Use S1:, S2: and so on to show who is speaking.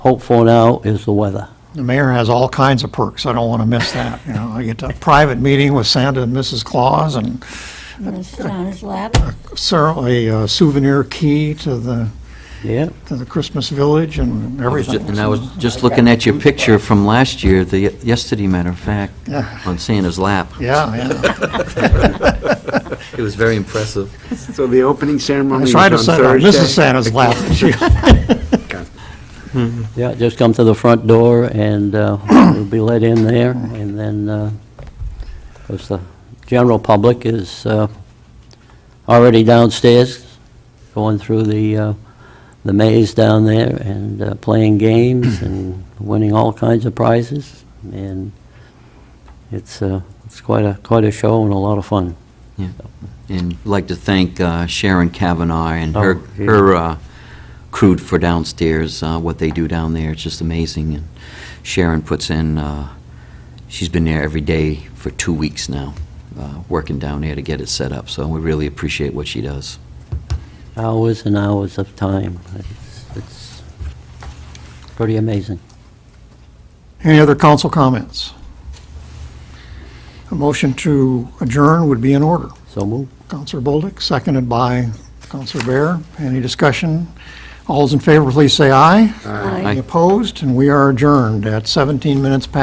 S1: hope for now is the weather.
S2: The mayor has all kinds of perks. I don't want to miss that. You know, I get a private meeting with Santa and Mrs. Claus and
S3: Sounds loud.
S2: certainly a uh, souvenir key to the,
S1: Yeah,
S2: to the Christmas village and
S4: was ju-
S2: everything.
S4: And I was just looking at your picture from last year, the, yesterday, matter of fact,
S2: Yeah.
S4: on Santa's lap.
S2: Yeah, yeah.
S4: It was very impressive.
S5: So the opening ceremony
S2: I
S5: is
S2: tried
S5: on
S2: to set up
S5: Thursday?
S2: Mrs. Santa's lap. She-
S1: yeah, just come to the front door and uh, you'll be let in there, and then, uh, of course, the general public is uh, already downstairs, going through the, uh, the maze down there and uh, playing games and winning all kinds of prizes, and it's, uh, it's quite a, quite a show and a lot of fun.
S4: And I'd like to thank uh, Sharon Kavanaugh and her,
S1: Oh, yeah.
S4: her uh, crew for downstairs, uh, what they do down there, it's just amazing. And Sharon puts in, uh, she's been there every day for two weeks now, uh, working down there to get it set up, so we really appreciate what she does.
S1: Hours and hours of time. It's- It's pretty amazing.
S2: Any other council comments? A motion to adjourn would be in order.
S1: So move.
S2: Counselor Bolduc, seconded by Counselor Bear. Any discussion? All those in favor, please say aye.
S4: Aye.
S2: Any opposed? And we are adjourned at 17 minutes past.